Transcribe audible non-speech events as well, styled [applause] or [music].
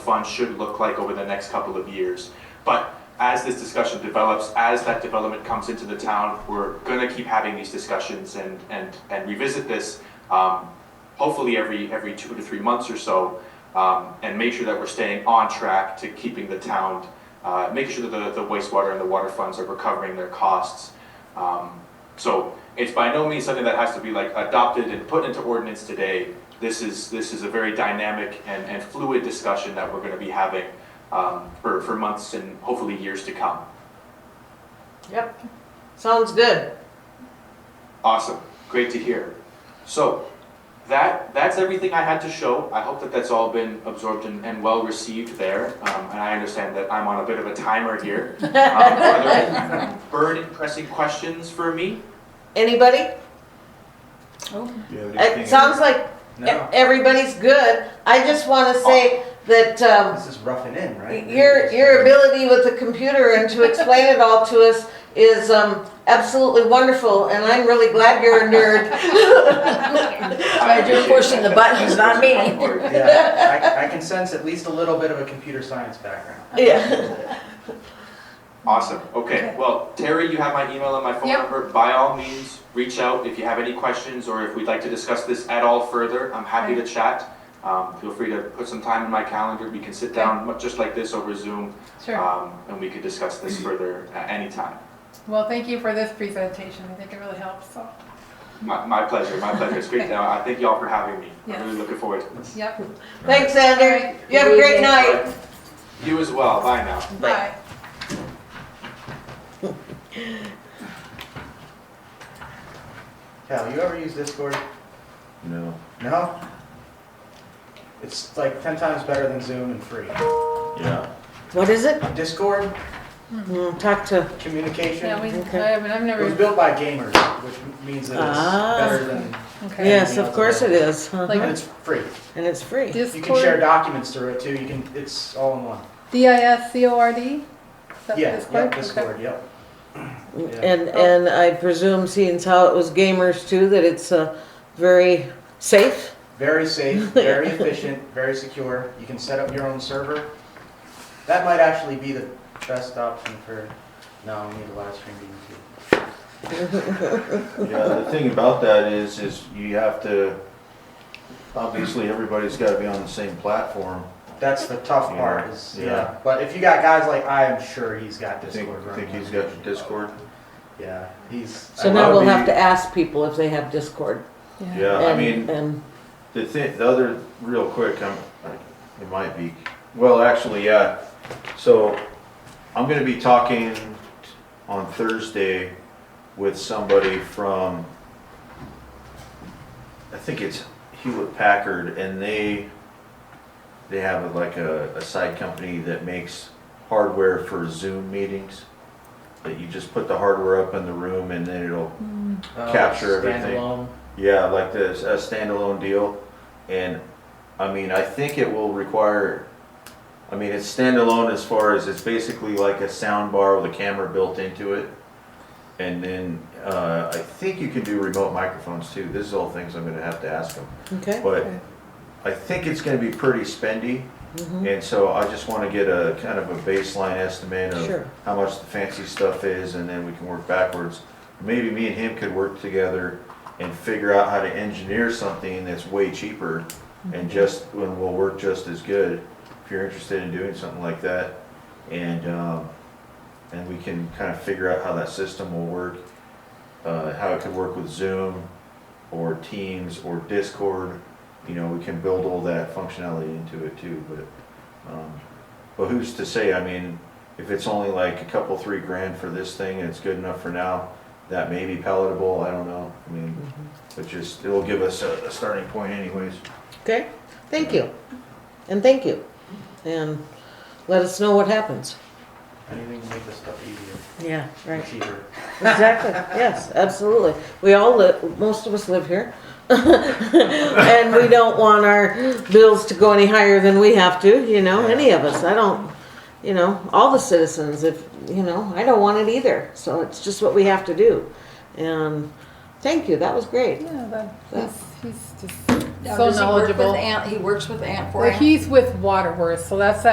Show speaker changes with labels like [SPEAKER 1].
[SPEAKER 1] fund should look like over the next couple of years. But as this discussion develops, as that development comes into the town, we're gonna keep having these discussions and, and, and revisit this, um, hopefully every, every two to three months or so, um, and make sure that we're staying on track to keeping the town, uh, making sure that the, the wastewater and the water funds are recovering their costs. Um, so it's by no means something that has to be like adopted and put into ordinance today. This is, this is a very dynamic and, and fluid discussion that we're gonna be having, um, for, for months and hopefully years to come.
[SPEAKER 2] Yep, sounds good.
[SPEAKER 1] Awesome, great to hear. So, that, that's everything I had to show. I hope that that's all been absorbed and, and well received there. Um, and I understand that I'm on a bit of a timer
[SPEAKER 3] [laughs]
[SPEAKER 1] here. Um, are there burning, pressing questions for me?
[SPEAKER 2] Anybody? Oh. It sounds like e-
[SPEAKER 4] No,
[SPEAKER 2] everybody's good. I just want to say that um,
[SPEAKER 4] this is roughing in, right?
[SPEAKER 2] your your ability with the computer and to explain it all to us is um, absolutely wonderful, and I'm really glad you're a nerd. [laughs]
[SPEAKER 3] Right, you're pushing the buttons, not me.
[SPEAKER 4] [laughs] Yeah, I, I can sense at least a little bit of a computer science background.
[SPEAKER 2] yeah.
[SPEAKER 1] Awesome, okay. Well, Terry, you have my email and my phone
[SPEAKER 3] Yep.
[SPEAKER 1] number. By all means, reach out if you have any questions or if we'd like to discuss this at all further. I'm happy to chat. Um, feel free to put some time in my calendar. We can sit down mu- just like this over Zoom. Um, and we could discuss this further at any time.
[SPEAKER 5] Well, thank you for this presentation. I think it really helps. So,
[SPEAKER 1] My, my pleasure, my pleasure. It's great. Uh, I thank y'all for having me. I'm really
[SPEAKER 5] Yes.
[SPEAKER 1] looking forward to this.
[SPEAKER 5] yep.
[SPEAKER 2] Thanks, Andrew. You have a great night.
[SPEAKER 1] You as well. Bye now.
[SPEAKER 5] Bye.
[SPEAKER 4] Cal, you ever use Discord?
[SPEAKER 6] No.
[SPEAKER 4] No? It's like ten times better than Zoom and free.
[SPEAKER 6] Yeah.
[SPEAKER 2] What is it?
[SPEAKER 4] Discord,
[SPEAKER 2] Mm, talk to.
[SPEAKER 4] communication,
[SPEAKER 5] Yeah, we,
[SPEAKER 4] it
[SPEAKER 2] Okay.
[SPEAKER 5] I haven't, I've
[SPEAKER 4] was
[SPEAKER 5] never,
[SPEAKER 4] built by gamers, which means that
[SPEAKER 2] Ah.
[SPEAKER 4] it's better than,
[SPEAKER 5] okay.
[SPEAKER 2] Yes, of course it is. huh?
[SPEAKER 5] Like-
[SPEAKER 4] and it's free.
[SPEAKER 2] and it's free.
[SPEAKER 4] You can share
[SPEAKER 5] Discord,
[SPEAKER 4] documents through it too, you can, it's all in one.
[SPEAKER 5] D-I-S-C-O-R-D? Is that
[SPEAKER 4] Yeah,
[SPEAKER 5] Discord?
[SPEAKER 4] yep,
[SPEAKER 5] Okay.
[SPEAKER 4] Discord, yep. Yeah.
[SPEAKER 2] And, and I presume, seeing as how it was gamers too, that it's uh, very safe. [laughs]
[SPEAKER 4] Very safe, very efficient, very secure. You can set up your own server. That might actually be the best option for, no, we need a live stream meeting too.
[SPEAKER 6] Yeah, the thing about that is, is you have to, obviously, everybody's gotta be on the same platform.
[SPEAKER 4] That's the tough
[SPEAKER 6] Yeah,
[SPEAKER 4] part is,
[SPEAKER 6] yeah.
[SPEAKER 4] yeah. But if you got guys like, I am sure he's got
[SPEAKER 6] I think,
[SPEAKER 4] Discord
[SPEAKER 6] I
[SPEAKER 4] running.
[SPEAKER 6] think he's got Discord.
[SPEAKER 4] Yeah, he's.
[SPEAKER 2] So
[SPEAKER 6] I
[SPEAKER 2] now
[SPEAKER 6] love
[SPEAKER 2] we'll have
[SPEAKER 6] the-
[SPEAKER 2] to ask people if they have Discord.
[SPEAKER 6] Yeah, I
[SPEAKER 2] and-
[SPEAKER 6] mean,
[SPEAKER 2] And,
[SPEAKER 6] the thing, the other, real quick, I'm, it might be, well, actually, yeah. So I'm gonna be talking on Thursday with somebody from, I think it's Hewlett Packard, and they, they have like a, a side company that makes hardware for Zoom meetings. That you just put the hardware up in the room and then it'll
[SPEAKER 4] uh,
[SPEAKER 6] capture everything.
[SPEAKER 4] standalone.
[SPEAKER 6] yeah, like this, a standalone deal. And, I mean, I think it will require, I mean, it's standalone as far as it's basically like a sound bar with a camera built into it. And then, uh, I think you can do remote microphones too. This is all things I'm gonna have to ask them.
[SPEAKER 2] okay.
[SPEAKER 6] But I think it's gonna be pretty spendy. And so I just wanna get a kind of a baseline estimate
[SPEAKER 2] Sure.
[SPEAKER 6] of how much the fancy stuff is and then we can work backwards. Maybe me and him could work together and figure out how to engineer something that's way cheaper and just, and will work just as good if you're interested in doing something like that. And, um, and we can kind of figure out how that system will work, uh, how it could work with Zoom or Teams or Discord. You know, we can build all that functionality into it too, but, um, but who's to say, I mean, if it's only like a couple, three grand for this thing and it's good enough for now, that may be palatable, I don't know, I mean, but just, it'll give us a, a starting point anyways.
[SPEAKER 2] Okay, thank you. And thank you. And let us know what happens.
[SPEAKER 4] Anything to make this stuff easier,
[SPEAKER 2] Yeah,
[SPEAKER 4] and cheaper.
[SPEAKER 2] Exactly, yes, absolutely. We all live, most of us live here. [laughs] And we don't want our bills to go any higher than we have to, you know, any of us. I don't, you know, all the citizens, if, you know, I don't want it either. So it's just what we have to do. And thank you, that was great.
[SPEAKER 5] Yeah, that, he's, he's just so
[SPEAKER 3] Does he work with
[SPEAKER 5] knowledgeable.
[SPEAKER 3] Ant- He works with Ant for
[SPEAKER 5] Well,
[SPEAKER 3] Ant.
[SPEAKER 5] he's with Waterworth, so that's that